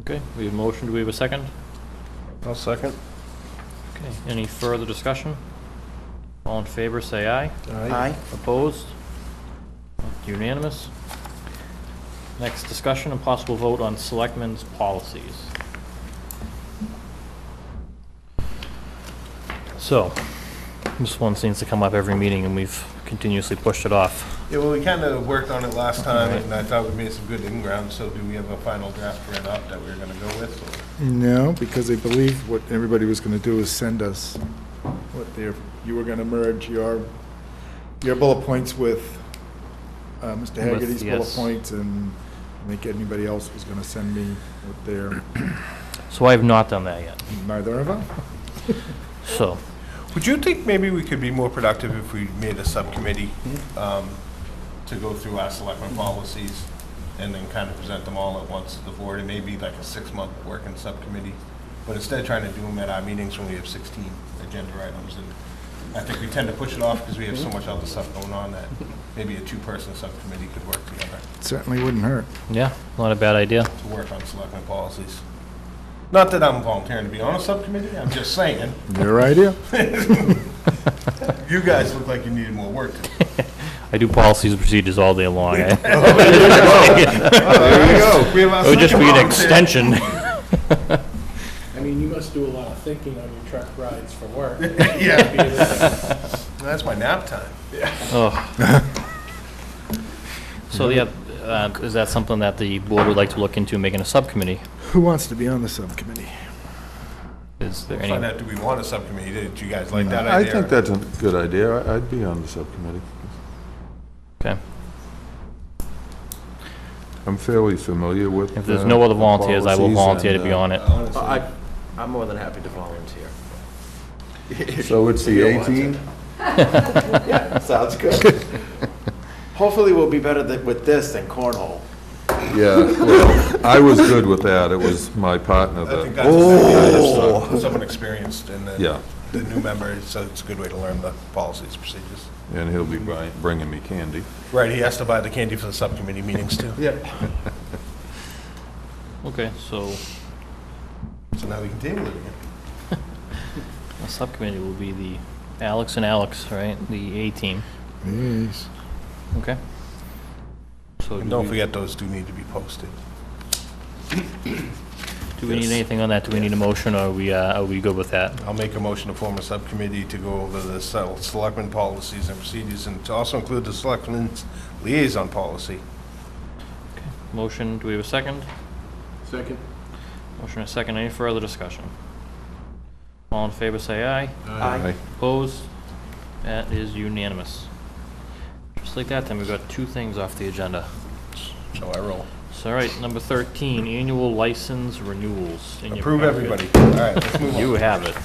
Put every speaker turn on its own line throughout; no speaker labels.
Okay, we have a motion, do we have a second?
I'll second.
Okay, any further discussion? All in favor, say aye.
Aye.
Opposed? Unanimous? Next, discussion and possible vote on selectmen's policies. So, this one seems to come up every meeting, and we've continuously pushed it off.
Yeah, well, we kind of worked on it last time,
Right.
and I thought we made some good in-ground, so do we have a final draft written up that we're going to go with?
No, because I believe what everybody was going to do is send us what their, you were going to merge your, your bullet points with uh, Mr. Hagerty's bullet
yes.
points, and I think anybody else was going to send me what their,
So I have not done that yet,
neither of them.
so.
or- Would you think maybe we could be more productive if we made a subcommittee um, to go through our selectmen policies and then kind of present them all at once to the board, and maybe like a six-month working subcommittee? But instead of trying to do them at our meetings when we have 16 agenda items, and I think we tend to push it off because we have so much other stuff going on that maybe a two-person subcommittee could work together.
Certainly wouldn't hurt.
Yeah, not a bad idea.
to work on selectmen policies. Not that I'm volunteering to be on a subcommittee, I'm just saying,
Your idea?
you guys look like you needed more work.
I do policies and procedures all day long. eh?
There you go. We have our
It would just
second
be an
volunteer.
extension.
I mean, you must do a lot of thinking on your truck rides for work.
Yeah, that's my nap time.
So, yeah, uh, is that something that the board would like to look into, making a subcommittee?
Who wants to be on the subcommittee?
Is there
Find
any,
out, do we want a subcommittee? Did you guys like that
I
idea?
think that's a good idea. I- I'd be on the subcommittee.
okay.
I'm fairly familiar with.
If there's
uh,
no other
the
volunteers, I will
policies
volunteer to
and,
be
uh,
on it.
Honestly,
I, I'm more than happy to volunteer.
So it's the
If you want
18th?
Sounds good. Hopefully, we'll be better than- with this than cornhole.
Yeah, well, I was good with that. It was my partner
I think
that,
that's a good idea, someone experienced and
Yeah.
then the new member, so it's a good way to learn the policies, procedures.
and he'll be bri- bringing me candy.
Right, he has to buy the candy for the subcommittee meetings too. Yeah.
Okay, so
So now we can table it again.
a subcommittee will be the Alex and Alex, right? The A-team,
Yes.
okay? So
And
do
don't
we,
forget, those do need to be posted.
do we need
this.
anything on that? Do we need a motion, or are we, uh, are we good with that?
I'll make a motion to form a subcommittee to go over the sel- selectmen policies and procedures, and to also include the selectmen's liaison policy.
Motion, do we have a second?
Second.
Motion and a second, any further discussion? All in favor, say aye.
Aye.
Opposed? That is unanimous. Just like that, then we've got two things off the agenda.
So I roll.
So, all right, number 13, annual license renewals. in your
Approve
packet.
everybody. All right, let's move on.
You have it.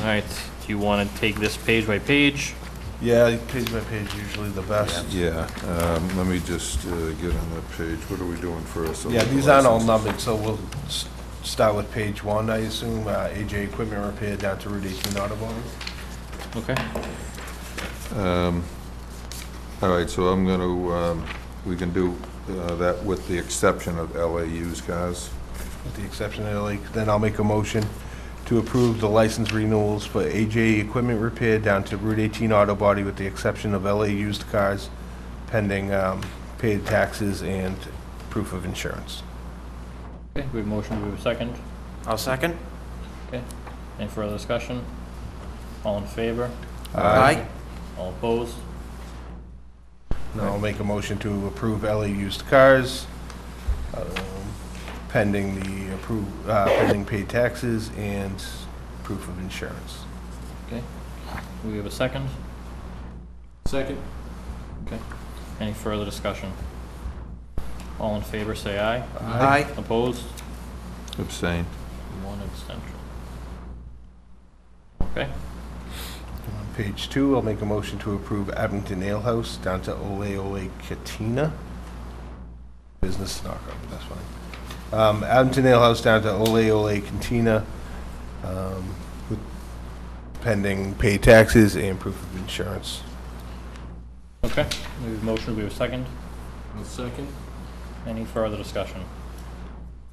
All right, do you want to take this page by page?
Yeah, page by page usually the best.
Yeah, um, let me just uh, get on that page. What are we doing first?
Yeah, these aren't all numbered, so we'll s- start with page one, I assume, uh, AJ Equipment Repair down to Route 18 Auto Body.
Okay,
All right, so I'm going to, we can do uh, that with the exception of LA used cars.
with the exception of LA. Then I'll make a motion to approve the license renewals for AJ Equipment Repair down to Route 18 Auto Body with the exception of LA Used Cars pending um, paid taxes and proof of insurance.
okay, we have a motion, we have a second.
I'll second.
Okay, any further discussion? All in favor?
Aye.
All opposed?
Now I'll make a motion to approve LA Used Cars um, pending the appro- uh pending paid taxes and proof of insurance.
Okay, do we have a second?
Second.
Okay, any further discussion? All in favor, say aye.
Aye.
Opposed?
Abstain.
One abstention. Okay,
On Page two, I'll make a motion to approve Abington Ale House down to Ole Ole Katina. Business knockup, that's fine. Um, Abington Ale House down to Ole Ole Katina, um, with pending pay taxes and proof of insurance.
okay, we have a motion, we have a second.
I'll second.
Any further discussion?